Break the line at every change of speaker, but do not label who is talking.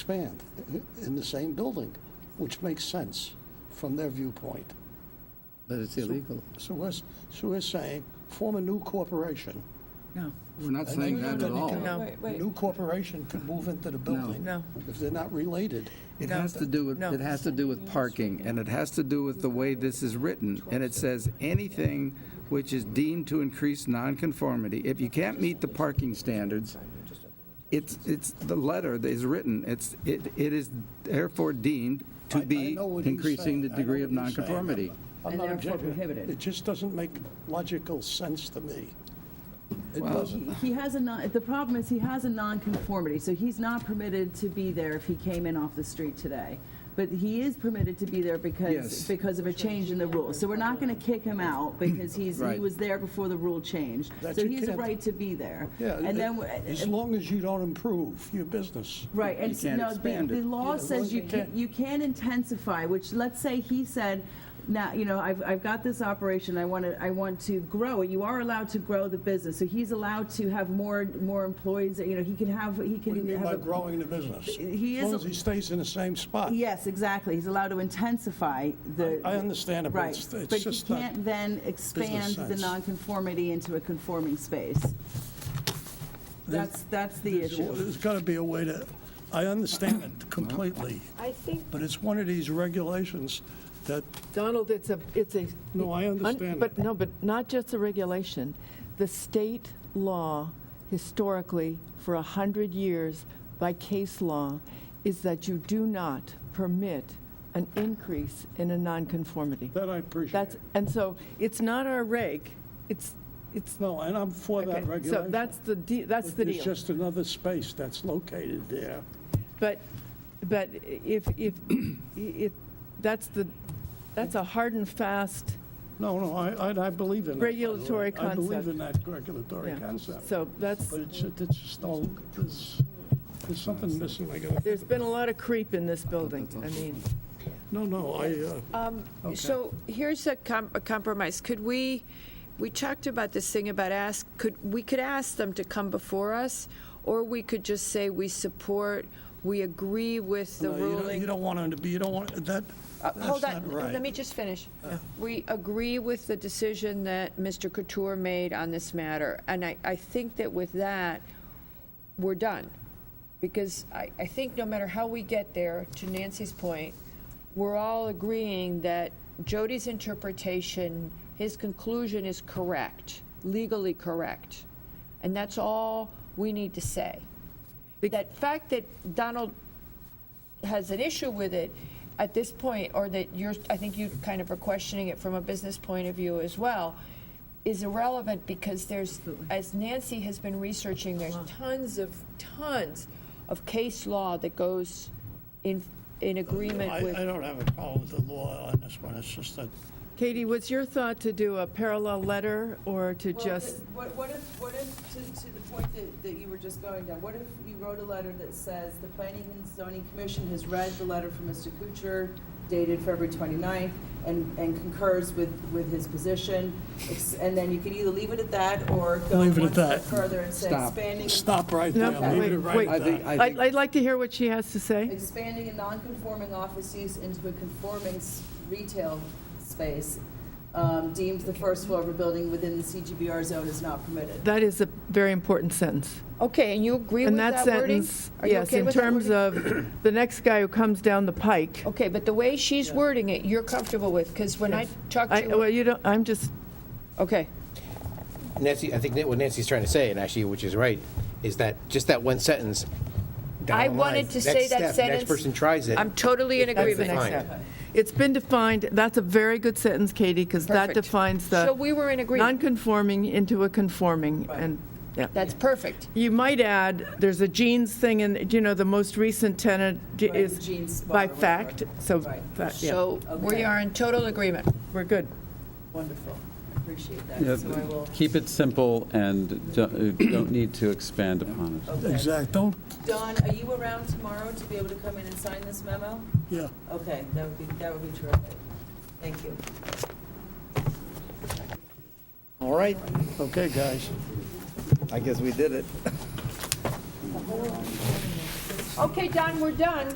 expand in the same building, which makes sense from their viewpoint.
But it's illegal.
So we're, s- so we're saying, form a new corporation.
No,
We're not saying that at all.
No.
Wait,
A
wait.
new corporation could move into the building.
No.
If they're not related.
It
has to do with,
No.
it has to do with parking, and it has to do with the way this is written. And it says, anything which is deemed to increase nonconformity, if you can't meet the parking standards, it's, it's, the letter that is written, it's, it, it is therefore deemed
I-
to
I
be
know what he's
increasing the
saying. I know
degree of
what he's saying.
nonconformity.
I'm
And
not
therefore
objecting.
prohibited.
It just doesn't make logical sense to me. It
Well,
doesn't.
He has a non, the problem is he has a nonconformity, so he's not permitted to be there if he came in off the street today. But he is permitted to be there because,
Yes.
because of a change in the rules. So we're not going to kick him out because he's, he
Right.
was there before the rule changed.
That
So
you
he has a
can't-
right to be there.
Yeah,
And then,
it-
w-
as long as you don't improve your business.
Right, and
You
s-
can't
no, the,
expand
the
it.
Yeah,
law
as long as
says you
you
can,
can't-
you can intensify, which, let's say he said, now, you know, I've, I've got this operation, I want to, I want to grow it, you are allowed to grow the business, so he's allowed to have more, more employees, you know, he can have, he
What do you
can
mean by
have. a-
growing the business?
He
As long
is-
as he stays in the same spot.
Yes, exactly, he's allowed to intensify the.
I understand it, but
Right,
it's- it's
but he
just not
can't then expand the
sense.
nonconformity into a conforming space. That's, that's the
Well,
issue.
There's got to be a way to, I understand it completely,
I think,
but it's one of these regulations that,
Donald, it's a, it's a.
No, I
un-
understand
But,
that.
no, but not just the regulation. The state law historically, for a 100 years, by case law, is that you do not permit an increase in a nonconformity.
that I appreciate.
That's, and so it's not our reg, it's, it's.
No, and I'm for that
okay,
regulation.
So that's the, de- that's the deal.
It's just another space that's located there.
But, but if, if, if, that's the, that's a hard and fast,
No, no, I, I- I believe in that. by the way.
Regulatory
I believe
concept.
in that regulatory
yeah.
concept.
So that's,
But it's, it's just all, there's, there's something missing. I gotta-
there's been a lot of creep in this building, I mean.
No, no, I, uh, Okay.
So here's a com- a compromise. Could we, we talked about this thing about ask, could, we could ask them to come before us, or we could just say we support, we agree with the
no, you don't-
ruling.
you don't want it to be, you don't want, that,
Uh,
that's
Hold on,
not right.
let me just finish. We agree with the decision that Mr. Couture made on this matter, and I, I think that with that, we're done. Because I, I think no matter how we get there, to Nancy's point, we're all agreeing that Jody's interpretation, his conclusion is correct, legally correct. And that's all we need to say. That fact that Donald has an issue with it at this point, or that you're, I think you kind of are questioning it from a business point of view as well, is irrelevant because there's, as Nancy has been researching, there's tons of, tons of case law that goes in, in agreement
I, I
with.
don't have a problem with the law on this one, it's just that
Katie, was your thought to do a parallel letter or to
Well,
just,
the- What, what if, what if, to, to the point that, that you were just going down, what if you wrote a letter that says, the planning and zoning commission has read the letter from Mr. Kuchar dated February 29th and, and concurs with, with his position, ex- and then you could either leave it at that or go
Leave it
one
at that.
step further and say
Stop.
expanding.
Stop right there,
No,
leave it
wait,
right
wait.
I
at
think,
that.
I
I'd,
think,
I'd like to hear what she has to say.
Expanding a non-conforming office use into a conforming s- retail space um, deemed the first floor of a building within the CGBR zone is not permitted.
That is a very important sentence.
Okay, and you agree with
And that
that wording?
sentence,
Are you
yes,
okay
in
with that
terms
wording? Oh,
of the next guy who comes down the pike.
Okay, but the way she's wording it, you're comfortable with, because when I talked
I,
to
well,
her,
you don't, I'm just,
okay.
Nancy, I think that what Nancy's trying to say, and actually, which is right, is that just that one sentence. down
I
the
wanted
line,
to
next
say that
step,
sentence.
Next person tries it.
I'm totally in
it's not
that's the
agreement.
next
defined.
step. It's been defined, that's a very good sentence, Katie, because that
Perfect.
defines
So
the
we were in agreement.
non-conforming into a conforming, and, yeah.
That's perfect.
You might add, there's a jeans thing, and, you know, the most recent tenant j-
Right, jeans
is
spot
by
or whatever.
fact, so,
Right.
fa- yeah,
So
Okay.
we are in total agreement.
we're good.
Wonderful, I appreciate
Yeah,
that, so I will,
Keep it simple and don't uh, don't need to expand upon it.
okay.
Exact, don't,
Don, are you around tomorrow to be able to come in and sign this memo?
yeah.
Okay, that would be, that would be terrific, thank you.
all right,
Okay, guys.
I guess we did it.
Okay, Don, we're done.